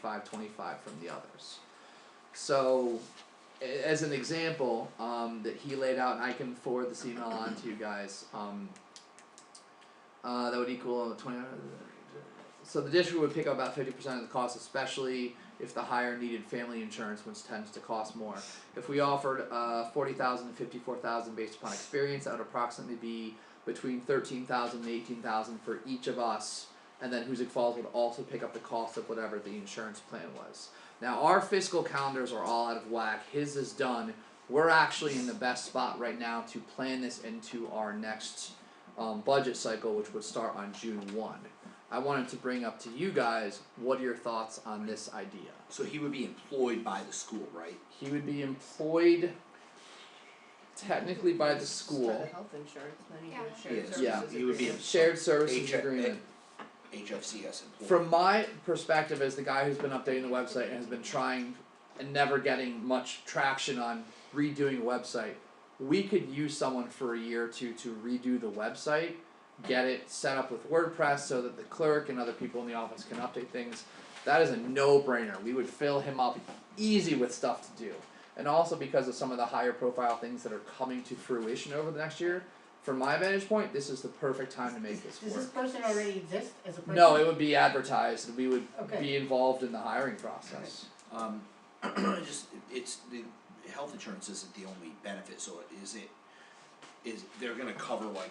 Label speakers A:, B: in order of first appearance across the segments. A: five twenty-five from the others. So, a- as an example, um, that he laid out, and I can forward this email on to you guys, um. Uh, that would equal twenty, so the district would pick up about fifty percent of the cost, especially if the higher needed family insurance, which tends to cost more. If we offered uh forty thousand to fifty four thousand based upon experience, that would approximately be between thirteen thousand and eighteen thousand for each of us. And then Hoosick Falls would also pick up the cost of whatever the insurance plan was. Now our fiscal calendars are all out of whack. His is done. We're actually in the best spot right now to plan this into our next um, budget cycle, which would start on June one. I wanted to bring up to you guys what are your thoughts on this idea?
B: So he would be employed by the school, right?
A: He would be employed technically by the school.
C: health insurance, then
D: you do Yeah.
B: shared Yeah, services you would be agreement.
A: Shared services
B: H-
A: agreement.
B: HFCS employee.
A: From my perspective as the guy who's been updating the website and has been trying and never getting much traction on redoing a website, we could use someone for a year or two to redo the website, get it set up with WordPress so that the clerk and other people in the office can update things. That is a no brainer. We would fill him up easy with stuff to do. And also because of some of the higher profile things that are coming to fruition over the next year, from my vantage point, this is the perfect time to make this work.
E: Does this person already exist as a person?
A: No, it would be advertised and we would
E: Okay.
A: be involved in the hiring process.
B: Um, I just, it's, the health insurance isn't the only benefit, so is it, is, they're gonna cover like,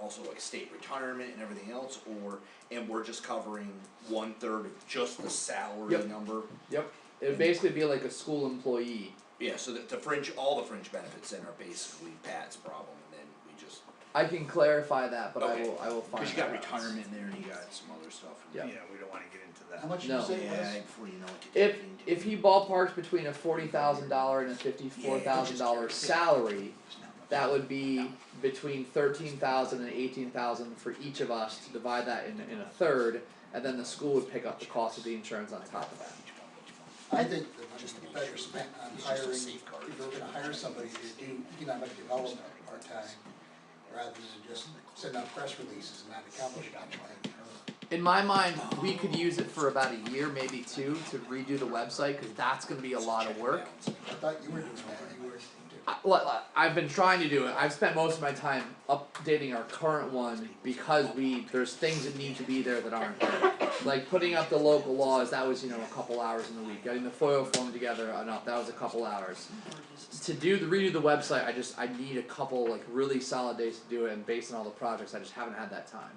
B: also like state retirement and everything else, or, and we're just covering one third of just the salary
A: Yep.
B: number?
A: Yep. It would basically be like a school employee.
B: Yeah, so that the fringe, all the fringe benefits then are basically Pat's problem, and then we just,
A: I can clarify that, but I
B: Okay.
A: will I will find
B: cause you got
A: that out.
B: retirement in there, and you got some other stuff.
A: Yeah.
F: Yeah, we don't wanna get into that.
G: How much did
A: No.
G: you say it was?
B: Yeah, before you know it. you
A: If
B: can't do
A: if
B: it.
A: he ballparks between a forty thousand dollar and a fifty four thousand dollar salary, that would be between thirteen thousand and eighteen thousand for each of us to divide that in in a third, and then the school would pick up the cost of the insurance on top of that.
G: I think the money
B: Just to
G: is
B: make
G: better
B: sure.
G: spent on
B: It's just a
G: hiring, if
B: safeguard.
G: you're gonna hire somebody to do economic development part-time, rather than just send out press releases and not accomplish anything.
A: In my mind, we could use it for about a year, maybe two, to redo the website, cause that's gonna be a lot of work.
G: I thought you were doing that, you were.
A: I, well, I- I've been trying to do it. I've spent most of my time updating our current one because we there's things that need to be there that aren't. there. Like putting up the local laws, that was you know a couple hours in the week. Getting the FOIA form together enough, that was a couple hours. To do the redo the website, I just I need a couple like really solid days to do it, and based on all the projects, I just haven't had that time.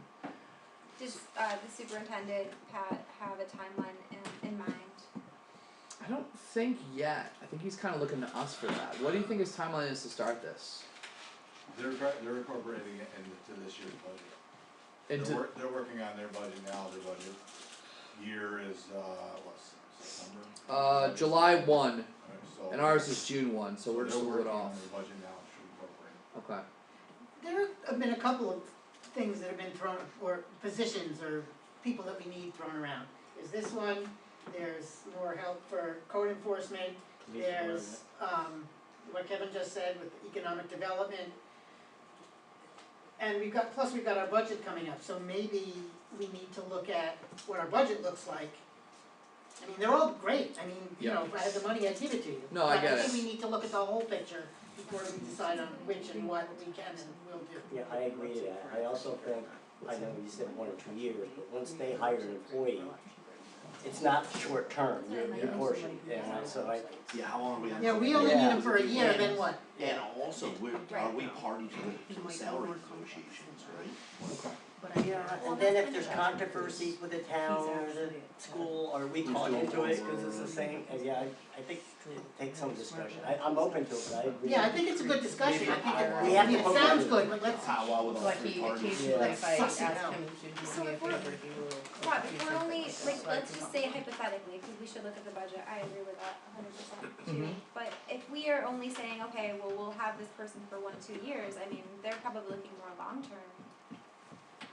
D: Does uh, the superintendent Pat have a timeline in, in mind?
A: I don't think yet. I think he's kind of looking to us for that. What do you think his timeline is to start this?
H: They're, gra- they're incorporating it into this year's budget. They're
A: Into
H: work, they're working on their budget now, their budget year is, uh, what, September?
A: uh, July one,
H: Alright, so-
A: and ours is June one, so we're just a
H: they're
A: little bit
H: working on
A: off.
H: their budget now, should incorporate.
A: Okay.
E: There have been a couple of things that have been thrown, or positions or people that we need thrown around. There's this one, there's more help for code enforcement, there's um what Kevin just said with economic development. And we've got, plus we've got our budget coming up, so maybe we need to look at what our budget looks like. I mean, they're all great, I mean, you
A: Yeah.
E: know, if I had the money, I'd give it to you.
A: No, I get
E: But I
A: it.
E: think we need to look at the whole picture before we decide on which and what we can and will do.
I: Yeah, I agree to that, I also think, I know you said one or two years, but once they hire an employee, it's not short term, your, your portion, and so I,
B: Yeah, how long are we on?
E: Yeah, we only need them for a year,
B: Yeah.
E: then what?
B: And also, we're, are we party to the
C: Right.
B: salary negotiations, right?
C: Yeah,
D: Well,
C: and then
D: that's
C: if there's
D: been-
C: controversies with the town or the school, are we
B: Who's
C: called
B: doing
C: into it,
B: what?
C: cause it's the same, and yeah, I, I think, it takes some discussion, I, I'm open to it, but I agree.
E: Yeah, I think it's a good discussion, I think it,
C: We have to
E: it
C: poke
E: sounds
C: it.
E: good, but let's,
B: Powwow with all
J: Like
B: three
J: he
B: parties.
J: occasionally, if I
E: Yeah.
J: asked him to
D: So
J: do me a
D: if we're-
J: favor, he will.
D: Yeah, if we're only, like,
J: So I
D: let's
J: can-
D: just say hypothetically, cause we should look at the budget, I agree with that a hundred percent too.
A: Mhm.
D: But if we are only saying, okay, well, we'll have this person for one, two years, I mean, they're probably looking more long-term.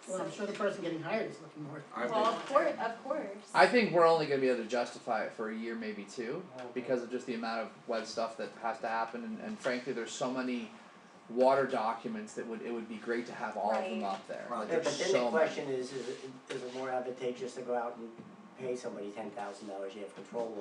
E: well, I'm sure the person getting hired is looking more.
B: I
D: Well, of course, of course.
A: I think we're only gonna be able to justify it for a year, maybe two, because of just the amount of web stuff that has to happen, and, and frankly, there's so many water documents that would, it would be great to have all of them
D: Right.
A: up there,
B: Right.
A: like
C: Yeah,
A: there's
C: but then
A: so
C: the
A: many.
C: question is, is it, is it more advantageous to go out and pay somebody ten thousand dollars, you have control